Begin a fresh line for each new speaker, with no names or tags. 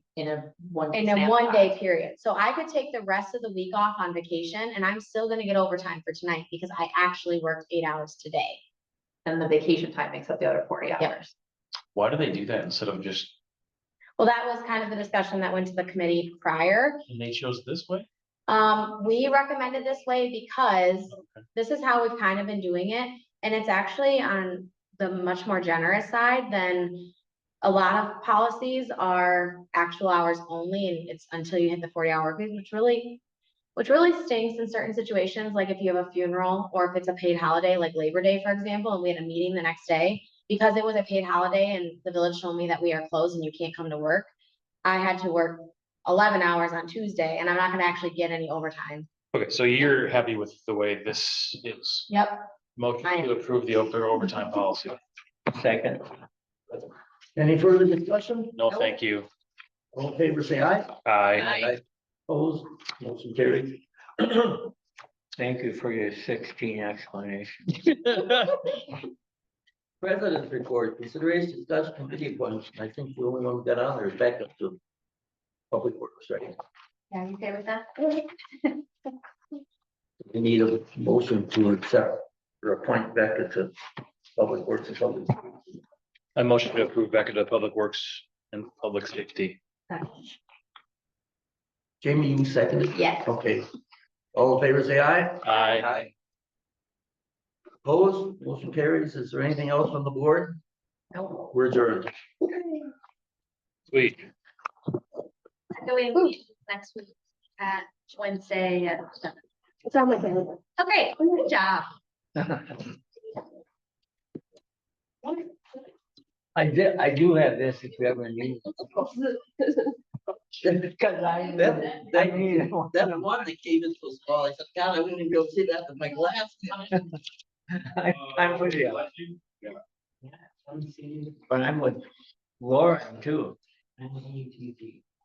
in a one.
in a one day period. So I could take the rest of the week off on vacation and I'm still gonna get overtime for tonight because I actually worked eight hours today.
And the vacation time makes up the other forty
Yep.
hours.
Why do they do that instead of just,
Well, that was kind of the discussion that went to the committee prior.
and they chose this way?
Um, we recommended this way because
Okay.
this is how we've kind of been doing it. And it's actually on the much more generous side than a lot of policies are actual hours only and it's until you hit the forty hour work week, which really, which really stinks in certain situations, like if you have a funeral or if it's a paid holiday, like Labor Day, for example, and we had a meeting the next day because it was a paid holiday and the village told me that we are closed and you can't come to work. I had to work eleven hours on Tuesday and I'm not gonna actually get any overtime.
Okay, so you're happy with the way this is.
Yep.
Motion
I am.
to approve the over- overtime policy.
Second. Any further discussion?
No, thank you.
All in favor, say aye.
I,
Opposed, motion carried.
Thank you for your sixteen explanation.
President's report, consideration, discussion, committee appointments. I think the only one we got on there is backup to public works, right?
Yeah, you okay with that?
We need a motion to accept or appoint backup to public works and public.
I motion to approve back into public works and public safety.
Jamie, you seconded?
Yes.
Okay. All in favor, say aye.
I,
Aye. Opposed, motion carries. Is there anything else on the board?
No.
We're adjourned.
sweet.
I'm going to meet next week at Wednesday at seven.
It's on my calendar.
Okay, good job.
I did, I do have this if you ever need. it. Cause I,
That-
I
that-
need it.
That one that came in so small, I said, God, I wouldn't even be able to see that with my glasses.
I- I'm with you. But I'm with Lauren too.